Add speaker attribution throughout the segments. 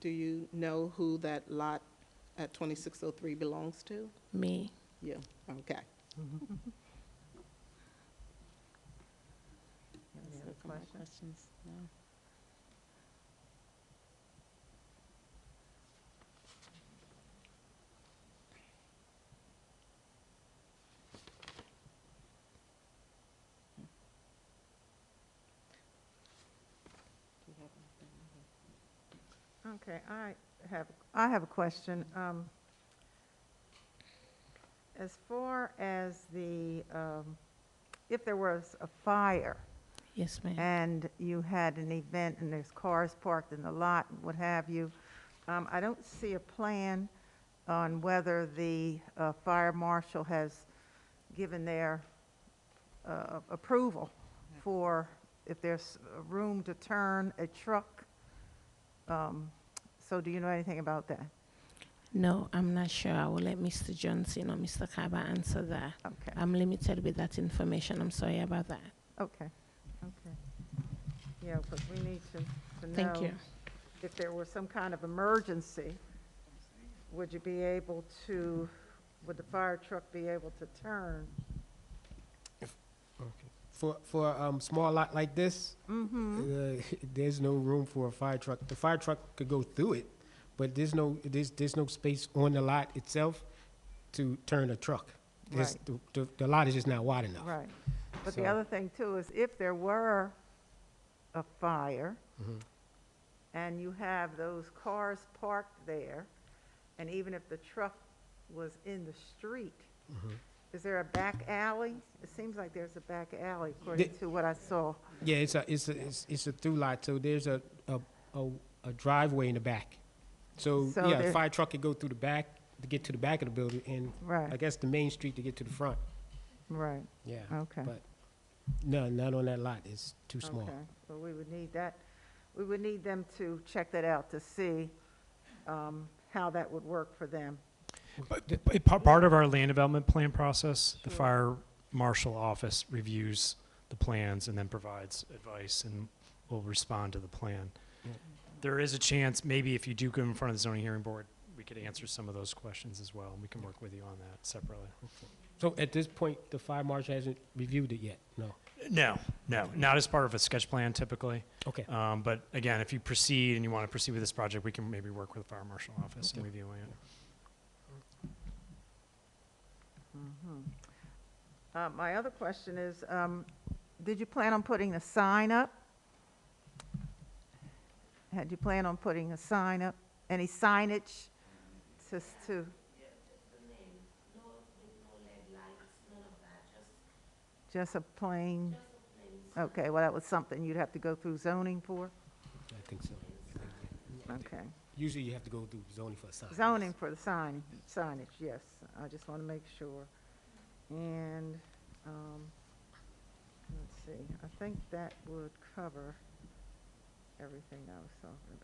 Speaker 1: do you know who that lot at 2603 belongs to?
Speaker 2: Me.
Speaker 1: Yeah, okay.
Speaker 3: Any other questions?
Speaker 4: questions? No.
Speaker 3: Okay, I have, I have a question. Um, As far as the, um, if there was a fire
Speaker 2: Yes, ma'am.
Speaker 3: and you had an event and there's cars parked in the lot, and what have you, um, I don't see a plan on whether the uh, fire marshal has given their uh, approval for if there's room to turn a truck. Um, So do you know anything about that?
Speaker 2: No, I'm not sure. I will let Mr. Johnson or Mr. Kaba answer that.
Speaker 3: Okay,
Speaker 2: I'm limited with that information. I'm sorry about that.
Speaker 3: okay, okay. Yeah, because we need to, to know.
Speaker 2: Thank you.
Speaker 3: if there were some kind of emergency, would you be able to, would the fire truck be able to turn?
Speaker 5: Okay. For, for a small lot like this,
Speaker 3: Mm-hmm.
Speaker 5: uh, there's no room for a fire truck. The fire truck could go through it, but there's no, there's, there's no space on the lot itself to turn a truck. There's-
Speaker 3: Right.
Speaker 5: The, the- the lot is just not wide enough.
Speaker 3: Right. But the
Speaker 5: So-
Speaker 3: other thing too is if there were a fire
Speaker 5: Mm-hmm.
Speaker 3: and you have those cars parked there, and even if the truck was in the street,
Speaker 5: Mm-hmm.
Speaker 3: is there a back alley? It seems like there's a back alley according
Speaker 5: The-
Speaker 3: to what I saw.
Speaker 5: Yeah, it's a, it's a, it's, it's a through lot, so there's a, a, a a driveway in the back. So,
Speaker 3: So
Speaker 5: yeah,
Speaker 3: there-
Speaker 5: a fire truck could go through the back to get to the back of the building, and I
Speaker 3: Right,
Speaker 5: guess the main street to get to the front,
Speaker 3: right.
Speaker 5: yeah.
Speaker 3: Okay.
Speaker 5: But, no, not on that lot, it's too small.
Speaker 3: Okay, well, we would need that, we would need them to check that out to see um, how that would work for them.
Speaker 6: But- but pa- Part of our land development plan process, the fire marshal office reviews the plans and then provides advice and will respond to the plan.
Speaker 5: Yeah.
Speaker 6: There is a chance, maybe if you do go in front of the zoning hearing board, we could answer some of those questions as well, and we can work with you on that separately.
Speaker 5: So at this point, the fire marshal hasn't reviewed it yet, no?
Speaker 6: No, no, not as part of a sketch plan typically.
Speaker 5: Okay,
Speaker 6: Um, But again, if you proceed and you want to proceed with this project, we can maybe work with the fire marshal office in
Speaker 5: Okay.
Speaker 6: reviewing it.
Speaker 3: Uh, My other question is, um, did you plan on putting a sign up? Had you planned on putting a sign up, any signage to, s- to? Just a plain? Okay, well, that was something you'd have to go through zoning for?
Speaker 5: I think so.
Speaker 3: Okay.
Speaker 5: Usually you have to go through zoning for a sign.
Speaker 3: Zoning for the sign, signage, yes. I just want to make sure. And, um, let's see, I think that would cover everything I was talking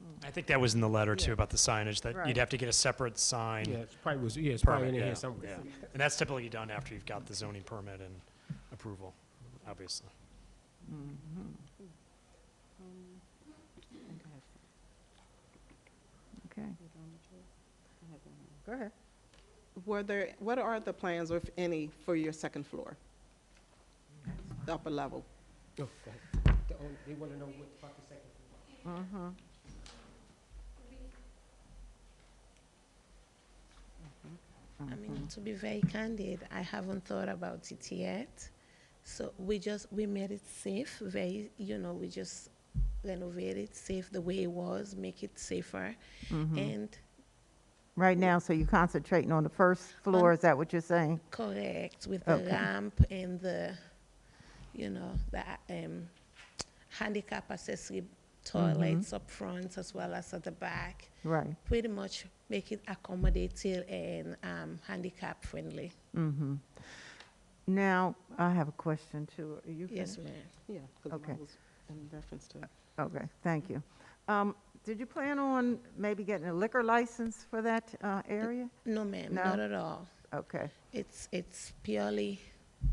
Speaker 3: about.
Speaker 6: I think that was in the letter
Speaker 3: Yeah.
Speaker 6: too, about the signage, that
Speaker 3: Right.
Speaker 6: you'd have to get a separate sign.
Speaker 5: Yeah, it's probably was, yeah, it's probably in
Speaker 6: Permit, yeah,
Speaker 5: here somewhere.
Speaker 6: And that's typically done after you've got the zoning permit and approval, obviously.
Speaker 3: Okay. Go ahead.
Speaker 1: Were there, what are the plans, or if any, for your second floor? The Upper level?
Speaker 5: Oh, go ahead. The only- They want to know what about the second floor.
Speaker 2: I mean, to be very candid, I haven't thought about it yet. So we just, we made it safe, very, you know, we just renovate it, safe the way it was, make it safer. And
Speaker 3: Right now, so you're concentrating on the first floor, is that what you're saying?
Speaker 2: correct with the
Speaker 3: Okay.
Speaker 2: ramp and the, you know, the um, handicap accessory toilets
Speaker 3: Mm-hmm.
Speaker 2: up front as well as at the back.
Speaker 3: Right.
Speaker 2: Pretty much make it accommodative and um, handicap friendly.
Speaker 3: Mm-hmm. Now, I have a question too. Are you
Speaker 2: Yes,
Speaker 3: finished?
Speaker 2: ma'am.
Speaker 1: Yeah, because
Speaker 3: Okay.
Speaker 1: mine was in reference to,
Speaker 3: Okay, thank you. Um, Did you plan on maybe getting a liquor license for that uh, area?
Speaker 2: No, ma'am,
Speaker 3: No?
Speaker 2: not at all.
Speaker 3: Okay,
Speaker 2: It's it's purely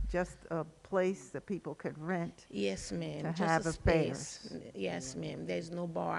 Speaker 3: just a place that people could rent?
Speaker 2: yes, ma'am.
Speaker 3: To
Speaker 2: just
Speaker 3: have
Speaker 2: a
Speaker 3: affairs.
Speaker 2: space. N- Yes, ma'am. There's no bar